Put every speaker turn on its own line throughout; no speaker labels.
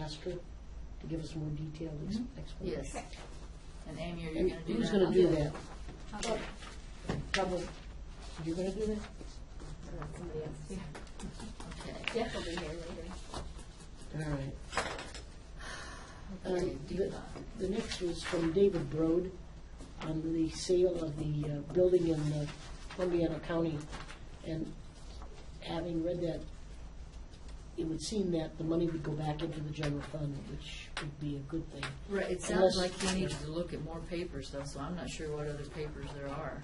ask her to give us more detailed ex-
Mhm.
explanation?
Yes. And Amy, are you
And
gonna do that?
Who's gonna do that?
I'll do it.
Probably, you're gonna do that?
Uh, Somebody else.
Okay.
Jeff will be here later.
All right.
Okay,
Um,
Deepa.
The next was from David Brode on the sale of the uh, building in uh, Columbiana County. And having read that, it would seem that the money would go back into the general fund, which would be a good thing.
Right, it sounds
Unless-
like he needs to look at more papers though, so I'm not sure what other papers there are.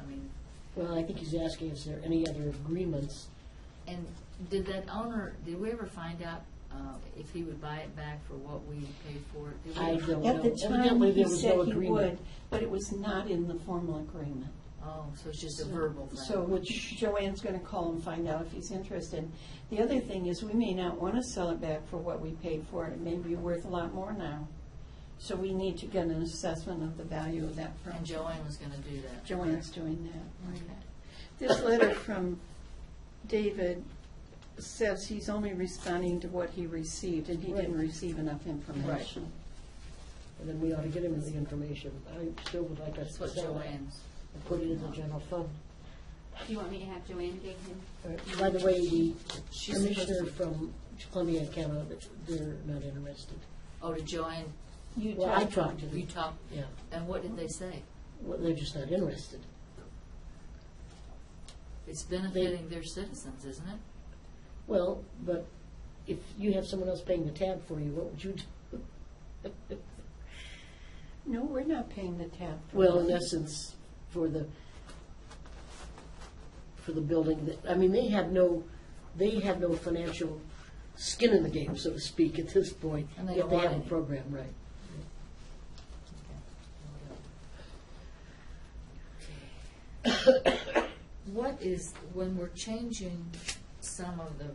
I mean,
Well, I think he's asking if there are any other agreements.
and did that owner, did we ever find out, uh, if he would buy it back for what we paid for it? Did we
I
ever-
don't know.
At the time,
Evidently,
he
there was no
said he would,
agreement.
but it was not in the formal agreement.
Oh, so it's just a verbal thing?
So
Which-
Joanne's going to call and find out if he's interested. The other thing is, we may not want to sell it back for what we paid for it. It may be worth a lot more now. So we need to get an assessment of the value of that
And
property.
Joanne was gonna do that?
Joanne's doing that.
Okay.
This letter from David says he's only responding to what he received, and he didn't
Right.
receive enough information.
And then we ought to get him the information. I still would like us
That's
to
what
sell it
Joanne's.
and put it in the general fund.
Do you want me to have Joanne dig him?
Uh, By the way, the
She's supposed
commissioner
to,
from Columbia, Canada, they're not interested.
oh, did Joanne,
You
Well, I
talked-
talked to them,
you talked,
yeah,
and what did they say?
well, they're just not interested.
It's benefiting their citizens, isn't it?
Well, but if you have someone else paying the tab for you, what would you do?
No, we're not paying the tab. for
Well, in
that.
essence, for the, for the building, that- I mean, they have no, they have no financial skin in the game, so to speak, at this point.
And they
Yet
don't
they
want
have a
any.
program, right.
What is, when we're changing some of the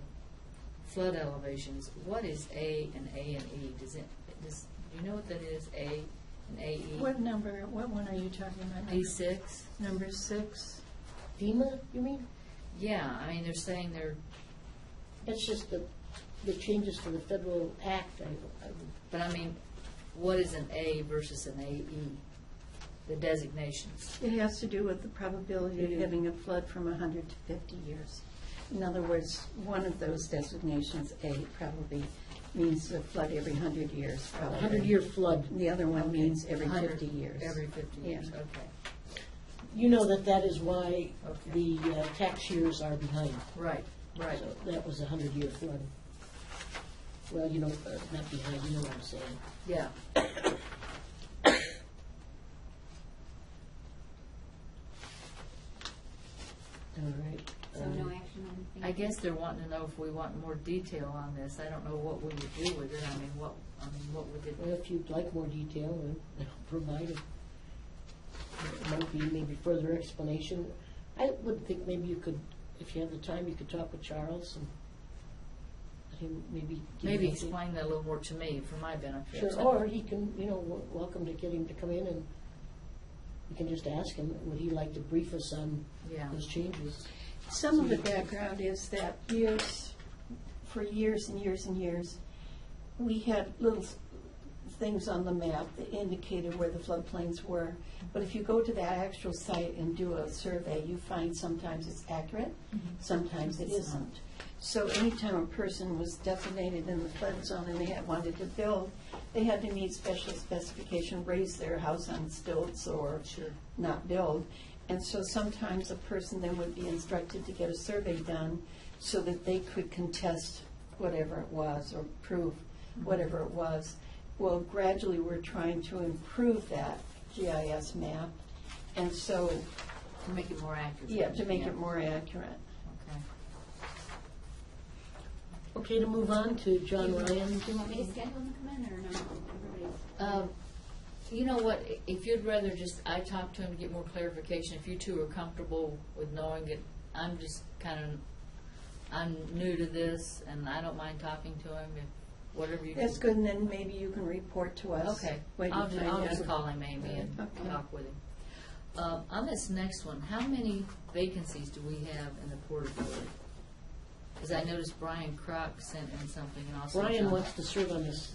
flood elevations, what is A and A and E? Does it, does, do you know what that is, A and AE?
What number, what one are you talking about?
A six?
Number six?
FEMA, you mean?
Yeah, I mean, they're saying they're,
That's just the, the changes to the federal act, I, I would
but I mean, what is an A versus an AE? The designations.
It has to do with the probability
It
of
is.
having a flood from 100 to 50 years. In other words, one of those designations, A, probably means a flood every 100 years, probably.
hundred-year flood.
And The other one means every
100
50 years.
Every fifty
Yeah.
years, okay.
You know that that is why
Okay.
the uh, tax years are behind.
Right, right.
So That was a hundred-year flood. Well, you know, uh, not behind, you know what I'm saying.
Yeah.
All right.
So
Um,
no action on the thing?
I guess they're wanting to know if we want more detail on this. I don't know what we would do with it. I mean, what, I mean, what would it,
Well, if you'd like more detail, then I'll provide it. It might be maybe further explanation. I would think maybe you could, if you have the time, you could talk with Charles and let him maybe. give you
maybe
a-
explain that a little more to me for my benefit.
Sure, or he can, you know, w- welcome to get him to come in and you can just ask him, would he like to brief us on
Yeah,
those changes?
Some of the background is that years, for years and years and years, we had little s- things on the map that indicated where the floodplains were. But if you go to that actual site and do a survey, you find sometimes it's accurate, sometimes it isn't. So anytime a person was designated in the flood zone and they had wanted to build, they had to meet special specification, raise their house on stilts or
sure.
not build. And so sometimes a person then would be instructed to get a survey done so that they could contest whatever it was or prove whatever it was. Well, gradually, we're trying to improve that GIS map, and so,
To make it more accurate.
yeah, to make it more accurate.
Okay.
Okay, to move on to
Do
John
you-
Ryan.
Do you want me to schedule him to come in or no? Everybody's.
Um, You know what, i- if you'd rather just, I talk to him to get more clarification, if you two are comfortable with knowing that I'm just kind of, I'm new to this, and I don't mind talking to him, if, whatever you.
That's good, and then maybe you can report to us.
Okay,
what you
I'll, ju-
find
I'll
out.
just call him, Amy, and
Okay.
talk with him. Um, on this next one, how many vacancies do we have in the Port Authority? Because I noticed Brian Crock sent in something and also
Brian
John-
wants to serve on this